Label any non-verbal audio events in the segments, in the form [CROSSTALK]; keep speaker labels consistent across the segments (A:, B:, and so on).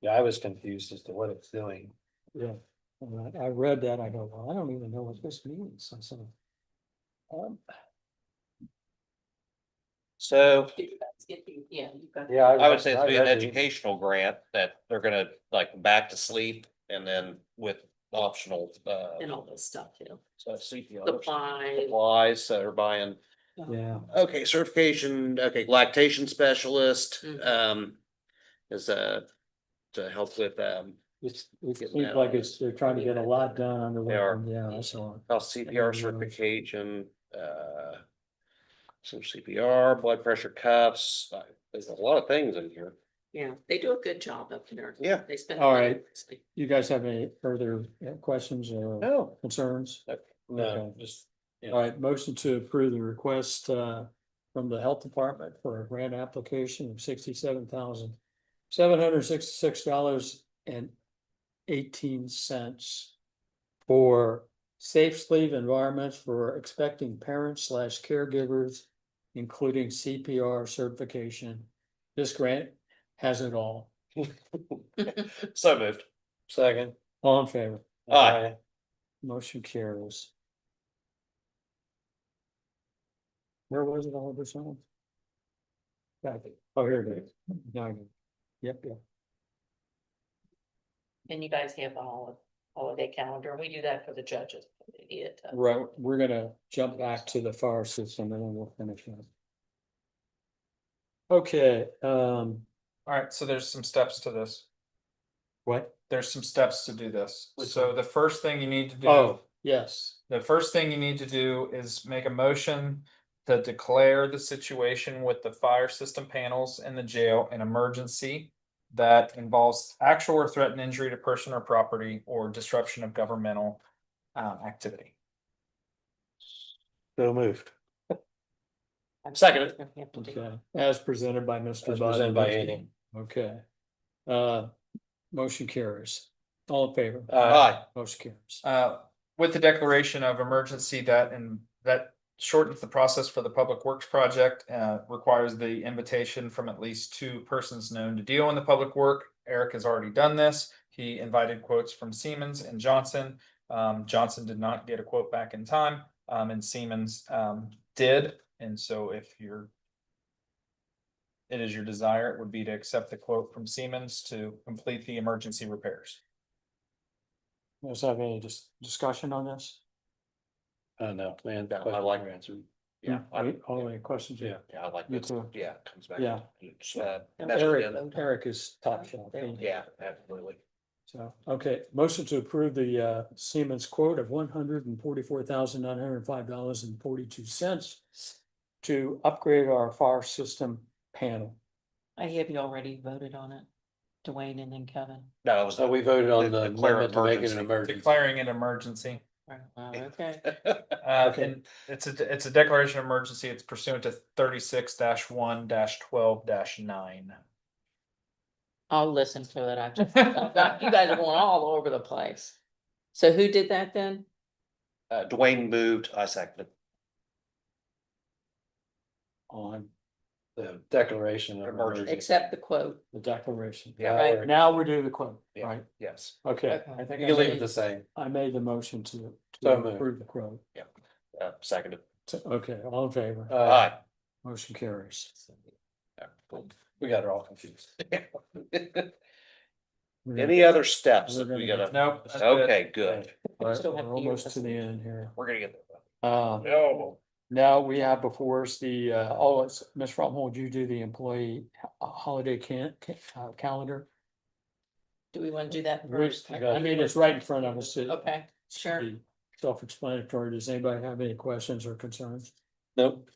A: Yeah, I was confused as to what it's doing.
B: Yeah, and I, I read that, I go, well, I don't even know what this means, and so. Um,
C: So
D: Yeah, you got.
A: Yeah.
C: I would say it's
A: I
C: gonna be an
A: read the-
C: educational grant that they're gonna like back to sleep and then with optional uh.
D: And all this stuff, you know,
C: so CPR,
D: supply.
C: Supplies that are buying,
B: yeah,
C: okay, certification, okay, lactation specialist,
D: Mhm.
C: um. Is uh to help with um,
B: it's, it
C: Getting
B: seems
C: that
B: like
C: on.
B: it's, they're trying to get a lot done under
C: They are.
B: one, yeah, I saw. it.
C: health CPR
B: Mhm.
C: certification, uh. Some CPR, blood pressure cuffs, uh, there's a lot of things in here.
D: Yeah, they do a good job up there.
C: Yeah.
D: They spend.
B: All right. You guys have any further uh, questions or
C: No.
B: concerns?
A: No, just, Yeah.
B: All right, motion to approve the request, uh, from the health department for a grant application of sixty-seven thousand, seven hundred sixty-six dollars and eighteen cents for safe sleep environments for expecting parents slash caregivers, including CPR certification. This grant has it all.
C: So moved.
A: second.
B: All in favor?
C: Aye.
B: Motion carries. Where was it all of a sudden? Got it. Oh, here it is. Now I get it. Yep, yep.
D: And you guys have a hol- holiday calendar. and We do that for the judges. They need it
E: uh,
D: to-
B: Right, we're gonna jump back to the fire system and then we'll finish up. Okay, um,
F: Alright, so there's some steps to this.
B: what?
F: There's some steps to do this. So the first thing you need to do,
B: Oh, yes,
F: the first thing you need to do is make a motion. To declare the situation with the fire system panels in the jail an emergency. That involves actual or threatened injury to person or property or disruption of governmental um activity.
A: So moved.
C: Second.
D: We have to do-
B: okay, as presented by Mr.
A: As presented by Hayden.
B: Okay. Uh, motion carries. All in favor?
A: Aye.
B: Motion carries.
F: Uh, with the declaration of emergency that and that shortens the process for the public works project, uh, requires the invitation from at least two persons known to deal in the public work. Eric has already done this. He invited quotes from Siemens and Johnson. Um, Johnson did not get a quote back in time, um, and Siemens, um, did. And so if you're it is your desire, it would be to accept the quote from Siemens to complete the emergency repairs.
B: Let's have any dis- discussion on this?
A: I know, man.
C: Yeah, I like
A: answer.
C: Yeah. I-
B: Any- Hmm, All any questions?
A: Yeah.
C: Yeah, I like
B: Me
C: this.
B: too.
C: Yeah, it comes back.
B: Yeah.
C: to- it's, uh,
D: Yeah.
C: that's
B: Eric,
C: good.
B: Eric is top shelf. ain't he?
C: Yeah, absolutely.
B: So, okay, motion to approve the uh Siemens quote of one hundred and forty-four thousand nine hundred and five dollars and forty-two cents to upgrade our fire system panel.
E: I have you already voted on it, Dwayne and then Kevin.
C: No, it was.
A: So we voted on the
C: Declare
A: amendment to make it an
C: emergency.
A: emergency.
F: Declaring an emergency.
E: Oh, Okay.
F: Uh,
B: Okay.
F: and it's a, it's a declaration of emergency. It's pursuant to thirty-six one twelve nine.
E: I'll listen to it. I just,
B: [LAUGHS]
E: you guys are going all over the place. So who did that then?
C: [LAUGHS] Uh, Dwayne moved, I seconded.
B: On
A: The declaration of
C: Emergency.
A: emergency.
E: Accept the quote.
B: the declaration.
C: Yeah.
E: Right.
A: Or-
B: Now we do the quote,
C: Yeah.
B: right?
C: Uh, Yes.
B: Okay,
E: Okay.
B: I think
A: You
B: I
A: can leave it
B: made,
A: the same.
B: I made the motion to
A: So
B: to
A: moved.
B: approve the quote.
C: Uh, seconded.
B: So, Okay, all in favor?
A: Uh,
B: [LAUGHS]
C: Aye.
B: Motion carries.
C: Yeah, cool.
A: we got it all confused.
B: We're-
C: Any other steps
B: We're
C: that we
B: gonna
C: gotta?
F: Nope. that's good.
C: Okay, good.
B: We're
E: still have
B: we're
E: to use
B: almost
E: this
B: to the
E: one.
B: end here.
C: We're gonna get there.
B: Uh,
C: No.
B: Now we have before us the, uh, oh, it's, Ms. Fromhold, you do the employee ho- holiday can, ca- uh, calendar.
E: Do we want to do that
B: We're-
E: first?
B: I mean, it's right in front of us. It
D: Oh,
E: Okay, sure.
B: should be Self-explanatory. Does anybody have any questions or concerns?
A: Nope.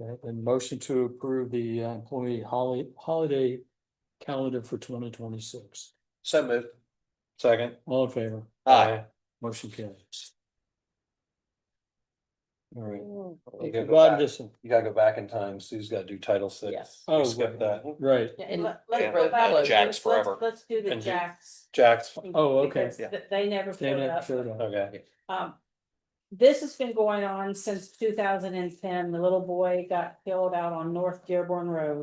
B: Okay, then motion to approve the uh, employee holiday, holiday calendar for twenty twenty-six.
C: So moved.
A: Second.
B: All in favor?
C: Aye.
B: Motion carries. All right.
A: You gotta go
B: Rod,
A: back-
B: listen,
A: you gotta go back in time. Sue's gotta do title six.
E: Yes.
B: Oh,
A: You skipped that.
B: right,
D: Yeah,
E: And-
D: and let-
C: yeah,
D: let's go
C: and
D: back to-
C: Jack's
D: let's-
C: forever.
D: Let's do the
A: And Jack-
D: Jack's.
A: Jack's,
B: Oh, okay.
D: because
C: Yeah.
D: th- They never
B: Stand
D: showed
B: up,
D: up.
B: showed up.
A: okay.
D: Um, this has been going on since two thousand and ten. The little boy got killed out on North Dearborn Road.